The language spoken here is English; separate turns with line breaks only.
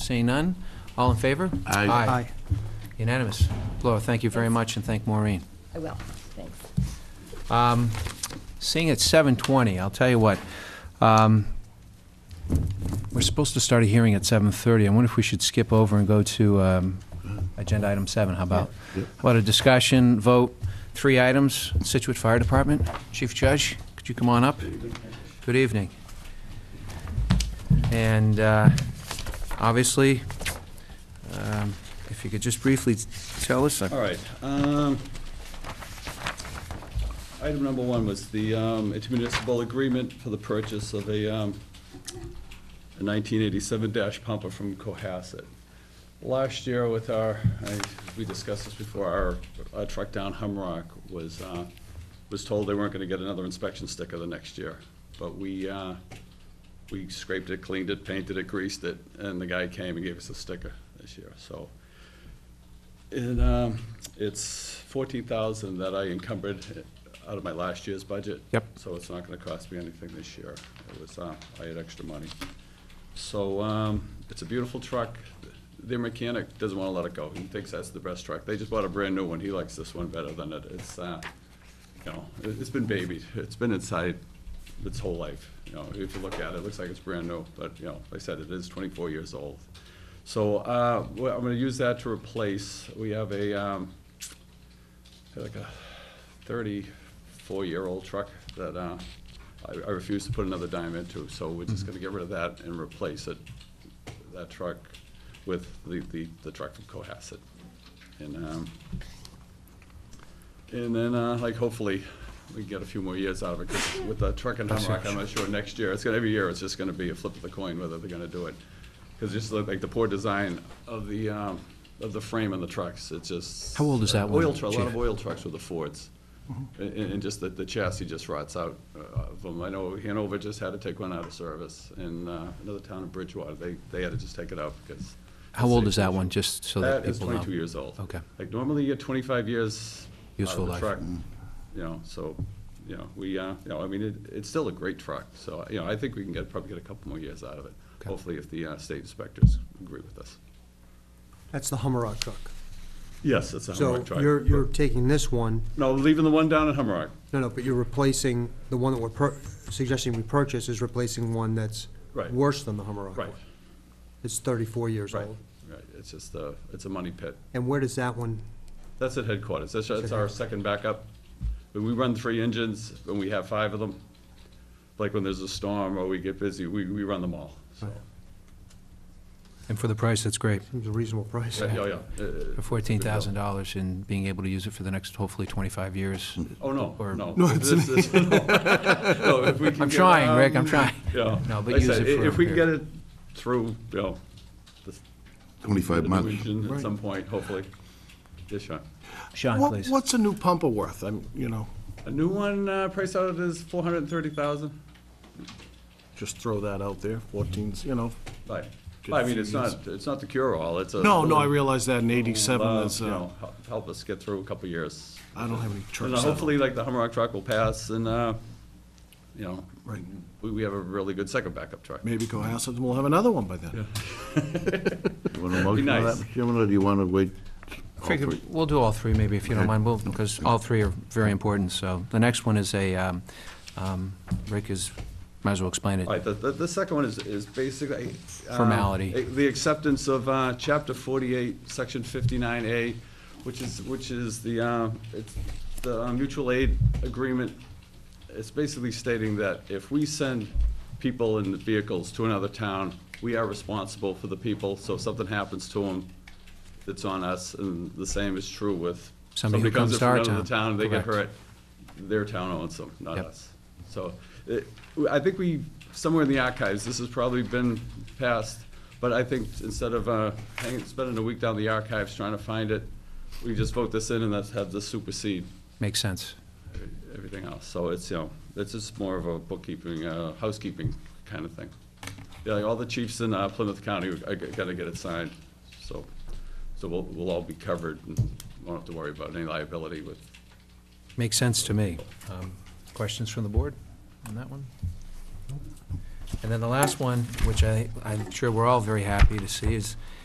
Seeing none, all in favor?
Aye.
Aye. Unanimous. Laura, thank you very much, and thank Maureen.
I will, thanks.
Um, Seeing it's 7:20, I'll tell you what, um, we're supposed to start a hearing at 7:30. I wonder if we should skip over and go to um, Agenda Item 7, how about?
Yeah.
What a discussion, vote, three items, Situate Fire Department. Chief Judge, could you come on up? Good evening. And uh, obviously, um, if you could just briefly tell us, uh,
All right. um, Item number one was the um, intermunicipal agreement for the purchase of a um, a 1987 dash pumper from Cohasset. Last year with our, I- we discussed this before, our- our truck down Humrock was, uh, was told they weren't going to get another inspection sticker the next year. But we, uh, we scraped it, cleaned it, painted it, greased it, and the guy came and gave us a sticker this year. So and um, it's fourteen thousand that I encumbered out of my last year's budget.
Yep.
So it's not gonna cost me anything this year. It was, uh, I had extra money. So, um, it's a beautiful truck. Their mechanic doesn't wanna let it go. He thinks that's the best truck. They just bought a brand-new one. He likes this one better than it. It's, uh, you know, it- it's been babied. It's been inside its whole life. You know, if you look at it, it looks like it's brand new, but, you know, like I said, it is twenty-four years old. So, uh, well, I'm gonna use that to replace, we have a, um, like a thirty-four-year-old truck that, uh, I, I refuse to put another dime into, so we're
Mm-hmm.
just gonna get rid of that and replace it, that truck with the, the, the truck from Cohasset. And, um, and then, uh, like, hopefully, we get a few more years out of it, 'cause with the truck and Humrock, I'm not sure, next year, it's gonna, every year, it's just gonna be a flip of the coin whether they're gonna do it. Because just look like the poor design of the, um, of the frame on the trucks, it's just.
How old is that one,
Oil truck, a lot of
Chief?
oil trucks with the Fords. And, and just that the chassis just rots out uh, of them. I know Hanover just had to take one out of service, and uh, another town in Bridgewater, they, they had to just take it out because.
how old is that one, just so that
That is
people know?
twenty-two years old.
Okay.
Like normally you get twenty-five years. out
Useful
of the
life. Mm.
truck, You know, so, you know, we, uh, you know, I mean, it, it's still a great truck, so, uh, you know, I think we can get, probably get a couple more years out of it.
Okay.
Hopefully if the uh, state inspectors agree with us.
That's the Hummerock truck.
Yes, it's a Humrock
So
truck.
you're, you're taking this one,
No, leaving the one down at Humrock.
no, no, but you're replacing, the one that we're pur- suggesting we purchase is replacing one that's
Right.
worse than the Hummerock one.
Right,
It's thirty-four years
right,
old.
right. It's just, uh, it's a money pit.
And where does that one,
That's at headquarters. That's, that's our second backup. When we run three engines, when we have five of them, like when there's a storm or we get busy, we, we run them all, so.
And for the price, that's great.
seems a reasonable price.
Yeah, yeah, yeah. Uh,
For fourteen thousand dollars and being able to use it for the next, hopefully, twenty-five years.
Oh, no,
or-
no. This is- no. No, if we can
I'm
get,
trying, Rick, I'm
um,
trying.
Yeah.
No, but
Like I
use
said,
it
i-
for
If
a
we can get
period.
it through, you know, the the
25
new
months.
engine at some point, hopefully. Yes, Sean.
Sean,
What-
please.
What's a new pumper worth? I'm, you know,
A new one, uh, priced out at is four hundred and thirty thousand.
just throw that out there, 14s, you know.
Right.
Good
I mean, it's
fees.
not, it's not the cure-all, it's a.
No, no, I realize that in
Uh,
87 is,
you
uh,
know, hel- Help us get through a couple years.
I don't have any
And
trucks.
uh,
that-
hopefully, like, the Hummerock truck will pass and, uh, you know,
Right.
we, we have a really good second backup truck.
Maybe Cohasset will have another one by then.
Want a motion for that,
nice.
Mr. Chairman, or do you want to wait?
Craig, We'll do all three, maybe, if you don't mind, we'll, because all three are very important, so. The next one is a, um, um, Rick is, might as well explain
All
it.
right, the, the, the second one is, is basically. um,
Formality.
eh, The acceptance of, uh, chapter forty-eight, section fifty-nine A, which is, which is the, uh, it's the uh, mutual aid agreement. It's basically stating that if we send people in vehicles to another town, we are responsible for the people, so if something happens to them, it's on us, and the same is true with.
Somebody who comes to
in from
our
another
town.
Town, they get
Correct.
hurt, their town owns them, not
Yep.
us. So, it- I think we, somewhere in the archives, this has probably been passed, but I think instead of uh, hanging, spending a week down the archives trying to find it, we just vote this in and that's have this supersede
Makes sense.
everything else. So it's, you know, it's just more of a bookkeeping, uh, housekeeping kind of thing. Yeah, like all the chiefs in uh, Plymouth County are g- gonna get it signed, so, so we'll, we'll all be covered and won't have to worry about any liability with
Makes sense to me. Um, Questions from the board on that one? And then the last one, which I, I'm sure we're all very happy to see, is